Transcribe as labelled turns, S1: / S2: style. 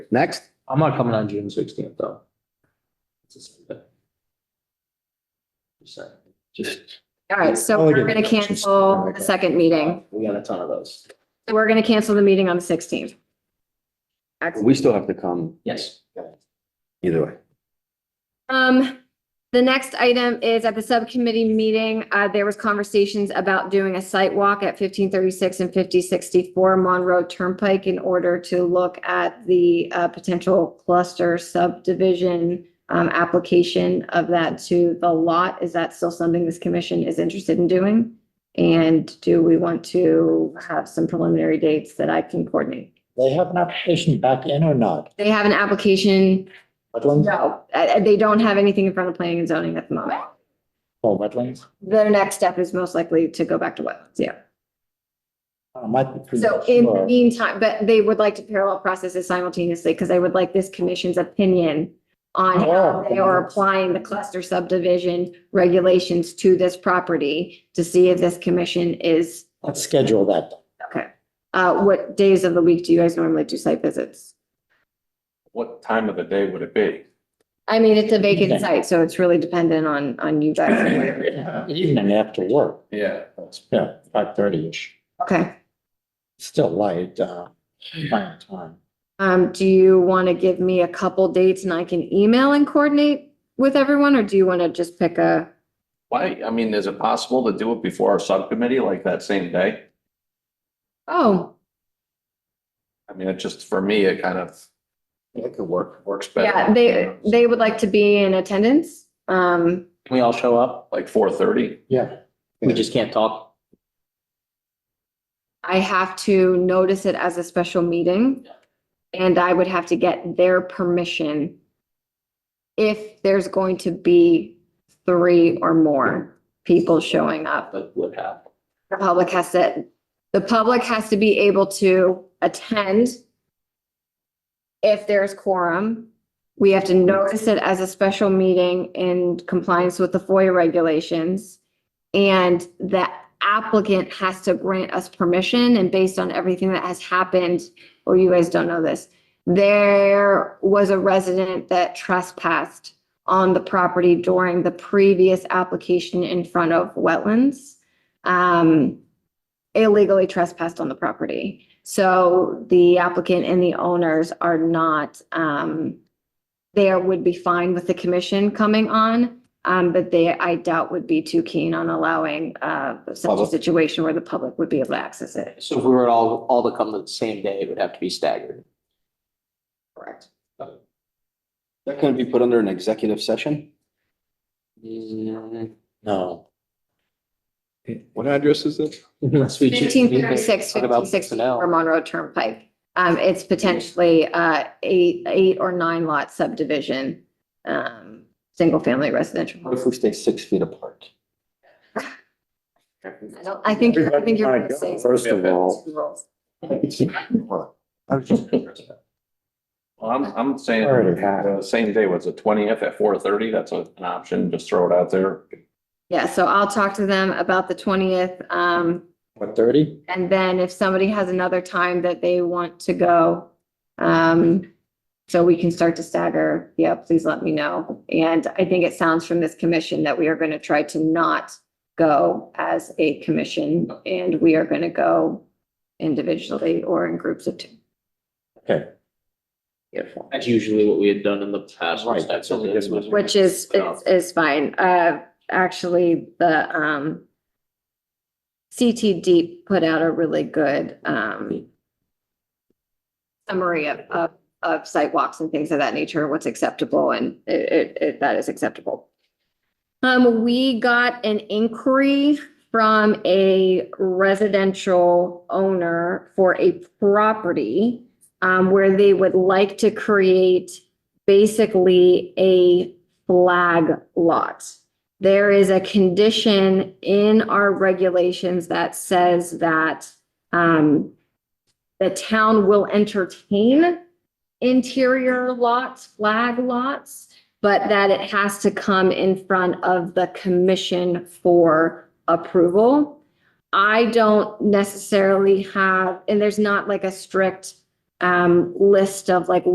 S1: Next,
S2: I'm not coming on June sixteenth, though. It's a Sunday. Just saying. Just,
S3: All right, so
S1: Oh,
S3: we're
S1: again,
S3: gonna
S1: it's just-
S3: cancel the second meeting.
S2: we got a ton of those.
S3: So We're gonna cancel the meeting on the sixteenth.
S1: we still have to come
S2: Yes.
S1: either way.
S3: Um, the next item is at the subcommittee meeting, uh, there was conversations about doing a site walk at fifteen thirty-six and fifty sixty-four Monroe Turnpike in order to look at the, uh, potential cluster subdivision, um, application of that to the lot. Is that still something this commission is interested in doing? And do we want to have some preliminary dates that I can coordinate?
S4: They have an application back in or not?
S3: They have an application,
S4: Wetlands?
S3: no, uh, they don't have anything in front of planning and zoning at the moment.
S4: Oh, wetlands?
S3: their next step is most likely to go back to wetlands, yeah.
S4: Uh, Might be pretty
S3: So in the
S4: sure.
S3: meantime, but they would like to parallel processes simultaneously because they would like this commission's opinion on how
S4: Oh.
S3: they are applying the cluster subdivision regulations to this property to see if this commission is,
S4: Let's schedule that.
S3: okay. Uh, what days of the week do you guys normally do site visits?
S5: What time of the day would it be?
S3: I mean, it's a vacant
S4: Okay.
S3: site, so it's really dependent on, on you guys.
S4: Evening after work,
S5: Yeah.
S4: yeah, five thirty-ish,
S3: Okay.
S4: still light, uh, by the time.
S3: Um, do you want to give me a couple dates and I can email and coordinate with everyone, or do you want to just pick a?
S5: Why, I mean, is it possible to do it before our subcommittee like that same day?
S3: Oh,
S5: I mean, it just, for me, it kind of,
S2: It could work.
S5: works better.
S3: yeah, they, they would like to be in attendance. Um,
S2: Can we all show up?
S5: Like four thirty?
S4: Yeah,
S2: We just can't talk.
S3: I have to notice it as a special meeting. And I would have to get their permission. If there's going to be three or more people showing up.
S2: That would happen.
S3: The public has to, the public has to be able to attend. If there's quorum, we have to notice it as a special meeting in compliance with the FOIA regulations. And the applicant has to grant us permission and based on everything that has happened, or you guys don't know this. There was a resident that trespassed on the property during the previous application in front of wetlands um, illegally trespassed on the property. So the applicant and the owners are not, um, there would be fine with the commission coming on, um, but they, I doubt would be too keen on allowing, uh, such a
S2: Public.
S3: situation where the public would be able to access it.
S2: So if we were all, all to come the same day, it would have to be staggered.
S3: Correct.
S1: That can be put under an executive session?
S4: no,
S6: What address is it?
S2: Unless we just-
S3: Fifteen thirty-six,
S2: Talk about
S3: fifteen sixty
S2: personnel.
S3: for Monroe Turnpike. Um, it's potentially, uh, eight, eight or nine lot subdivision, um, single-family residential. home.
S1: What if we stay six feet apart?
S3: I don't, I think, you're- I think you're gonna say.
S1: First of all,
S5: Well, I'm, I'm saying,
S4: Already had.
S5: the same day, was the twentieth at four thirty? That's a- an option, just throw it out there.
S3: Yeah, so I'll talk to them about the twentieth, um,
S4: what, thirty?
S3: and then if somebody has another time that they want to go, um, so we can start to stagger, yeah, please let me know. And I think it sounds from this commission that we are gonna try to not go as a commission, and we are gonna go individually or in groups of two.
S4: Okay,
S2: That's usually what we had done in the past.
S4: Right, that's what we did with-
S3: Which is, is, is fine. Uh, actually, the, um, CTD put out a really good, um, summary of, of, of sidewalks and things of that nature, what's acceptable and it, it, it, that is acceptable. Um, we got an inquiry from a residential owner for a property, um, where they would like to create basically a flag lot. There is a condition in our regulations that says that um, the town will entertain interior lots, flag lots, but that it has to come in front of the commission for approval. I don't necessarily have, and there's not like a strict um, list of like